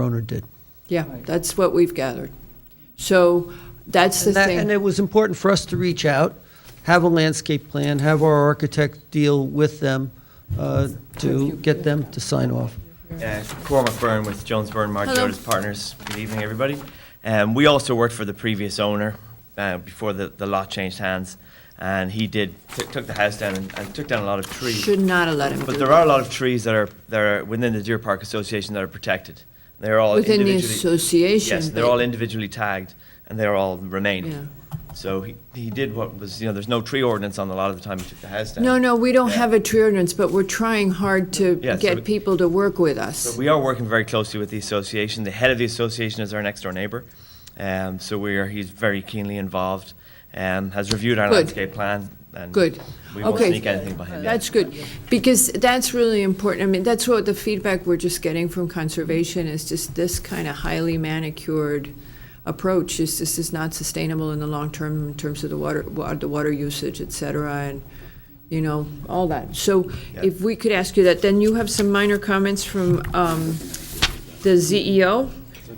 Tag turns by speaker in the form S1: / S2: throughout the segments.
S1: owner did.
S2: Yeah, that's what we've gathered. So that's the
S1: And that- And
S2: thing.
S1: it was important for us to reach out, have a landscape plan, have our architect deal with them uh, to get them to sign off.
S3: Uh, Cormac Byrne with Jones Byrne Mark
S2: Hello.
S3: Jones Partners. Good evening, everybody. Um, we also worked for the previous owner uh, before the, the lot changed hands, and he did took took the house down and, and took down a lot of trees.
S2: Should not have let him do
S3: But there are
S2: that.
S3: a lot of trees that are that are within the Deer Park Association that are protected. They're all
S2: Within the
S3: individually,
S2: association.
S3: Yes, they're
S2: but-
S3: all individually tagged, and they're all remaining.
S2: Yeah.
S3: So he, he did what was you know there's no tree ordinance on a lot of the time he took the house down.
S2: No, no, we don't
S3: Yeah.
S2: have a tree ordinance, but we're trying hard to
S3: Yeah, so
S2: get
S3: it-
S2: people to work with us.
S3: So we are working very closely with the association. The head of the association is our next door neighbour, um, so we are. He's very keenly involved. Um, has reviewed our
S2: Good.
S3: landscape plan. And
S2: Good.
S3: We won't
S2: Okay.
S3: sneak anything behind
S2: That's good, because that's really important. I mean, that's what the feedback we're just getting from conservation is just this kind of highly manicured approach is this is not sustainable in the long term in terms of the water, wa- the water usage, et cetera, and, you know, all that. So
S3: Yeah.
S2: if we could ask you that, then you have some minor comments from um, the ZEO.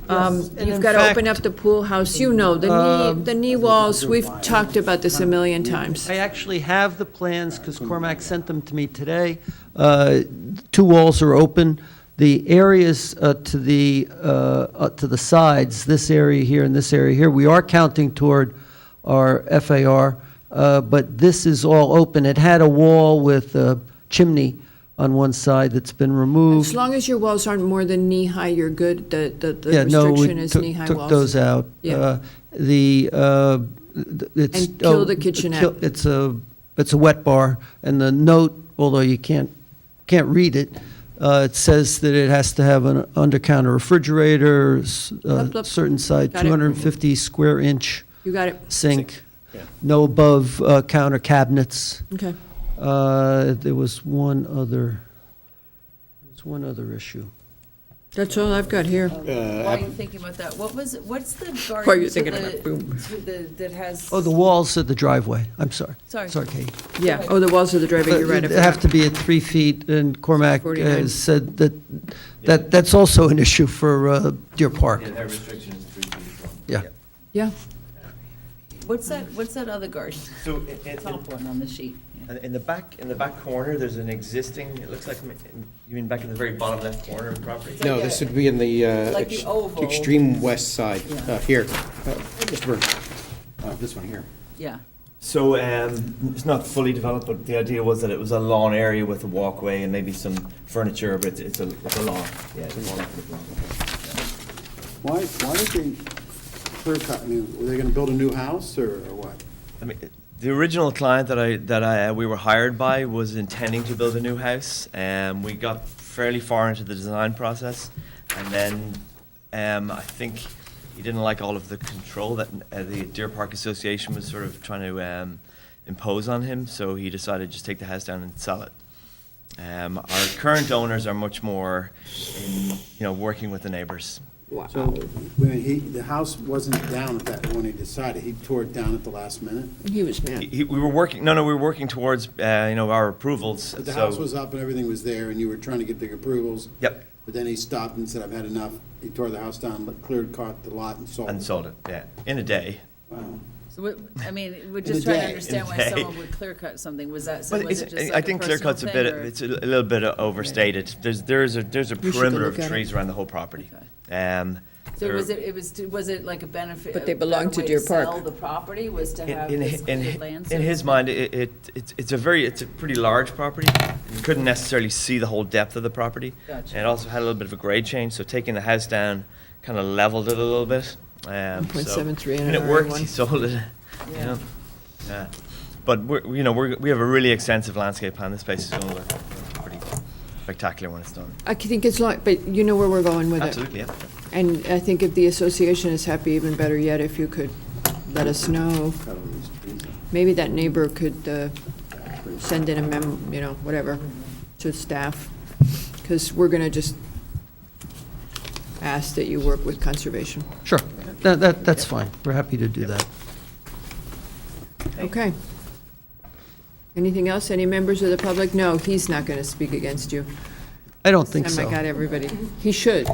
S2: Um,
S1: and
S2: You've
S1: in
S2: got to open
S1: fact- um,
S2: up the pool house, you know, the knee, the knee walls, we've talked about this a million times.
S1: I actually have the plans, because Cormac sent them to me today. Uh, Two walls are open. The areas uh, to the, uh, uh, to the sides, this area here and this area here, we are counting toward our FAR, uh, but this is all open. It had a wall with a chimney on one side that's been removed.
S2: As long as your walls aren't more than knee-high, you're good. The, the, the
S1: Yeah, no,
S2: restriction
S1: we
S2: is
S1: took,
S2: knee-high
S1: took
S2: walls.
S1: those out.
S2: Yeah.
S1: Uh, The, uh, th- it's.
S2: And kill
S1: oh,
S2: the kitchenette.
S1: kill- It's a, it's a wet bar, and the note, although you can't, can't read it, uh, it says that it has to have an under-counter refrigerator, s-
S2: Lup,
S1: uh,
S2: lup.
S1: certain size,
S2: Got it.
S1: 250 square inch
S2: You got it.
S1: sink, no above-counter cabinets.
S2: Okay.
S1: Uh, There was one other, there was one other issue.
S2: That's all I've got here.
S4: Uh,
S5: While you're thinking about that, what was, what's the garden?
S2: While you're
S5: to
S2: thinking
S5: the-
S2: about boom.
S5: to the- That has.
S1: Oh, the walls at the driveway, I'm sorry.
S5: Sorry.
S1: Sorry, Katie.
S2: Yeah. Oh, the walls of the driveway, you're right. I
S1: It'd have
S2: forgot.
S1: to be at three feet, and Cormac uh,
S2: 49.
S1: said that, that, that's also an issue for uh, Deer Park,
S3: their restriction is three feet as well.
S1: yeah.
S2: Yeah.
S5: What's that, what's that other garden?
S3: So in,
S5: Top one on the sheet.
S3: in, in the back in the back corner, there's an existing. It looks like you mean back in the very bottom left corner of the property.
S4: No, this would be in the uh,
S5: Like the
S4: ex-
S5: oval.
S4: extreme west side,
S5: Yeah.
S4: Uh, here. Uh, Mr. Burns, Uh, this one here.
S5: Yeah.
S3: So um, it's not fully developed, but the idea was that it was a lawn area with a walkway and maybe some furniture, but it's, it's, a, it's a lawn. Yeah, it's a lawn.
S6: Why, why did they clear cut, I mean, were they gonna build a new house or or what?
S3: I mean, the original client that I that I uh, we were hired by was intending to build a new house, and we got fairly far into the design process, and then um, I think he didn't like all of the control that uh, the Deer Park Association was sort of trying to um, impose on him, so he decided to just take the house down and sell it. Um, our current owners are much more, in, you know, working with the neighbors.
S6: So, I mean, he, the house wasn't down at that, when he decided, he tore it down at the last minute.
S2: He was mad.
S3: He, we were working. No, no, we were working towards uh, you know our approvals.
S6: But the
S3: so-
S6: house was up and everything was there, and you were trying to get big approvals.
S3: Yep.
S6: But then he stopped and said, I've had enough, he tore the house down, but cleared, caught the lot and sold.
S3: and
S6: it.
S3: sold it. Yeah, in a day.
S6: Wow.
S5: So what, I mean, we're
S6: the
S5: just trying to
S6: day.
S5: understand why
S3: In the day.
S5: someone would clear cut something. Was that, so
S3: But
S5: was
S3: it's,
S5: it just
S3: I
S5: like a
S3: think clear
S5: personal
S3: cut's a
S5: thing
S3: bit.
S5: or?
S3: It's a, a little bit overstated. There's there's a there's a
S2: should go
S3: perimeter of
S2: look at it.
S3: trees around the whole property. Um,
S5: So
S3: there-
S5: was it, it was, was it like a benefit?
S2: But they
S5: a better
S2: belong to
S5: way
S2: Deer Park.
S5: Sell the property was to
S3: in,
S5: have
S3: in,
S5: this
S3: hi- in,
S5: cleared
S3: hi-
S5: land.
S3: in
S5: so-
S3: his mind, it, it it's it's a very it's a pretty large property. You couldn't necessarily see the whole depth of the property.
S5: Gotcha.
S3: And it also had a little bit of a grade change. So taking the house down, kind of leveled it a little bit. Um, so-
S2: 1.73 and
S3: and it
S2: an
S3: worked.
S2: R1.
S3: He sold it. You
S5: Yeah.
S3: know. Yeah. Uh, But we're, you know we're, we have a really extensive landscape plan. This space is going to look pretty spectacular when it's done.
S2: I think it's like, but you know where we're going with it.
S3: Absolutely, yeah.
S2: And I think if the association is happy, even better yet, if you could let us know.
S6: Cut all these trees out.
S2: Maybe that neighbor could uh, send in a mem, you know, whatever, to staff. Because we're going to just ask that you work with conservation.
S1: Sure, that, that, that's fine, we're happy to do that.
S2: Okay. Anything else? Any members of the public? No, he's not going to speak against you.
S1: I don't think
S2: Time
S1: so.
S2: I got everybody. He should.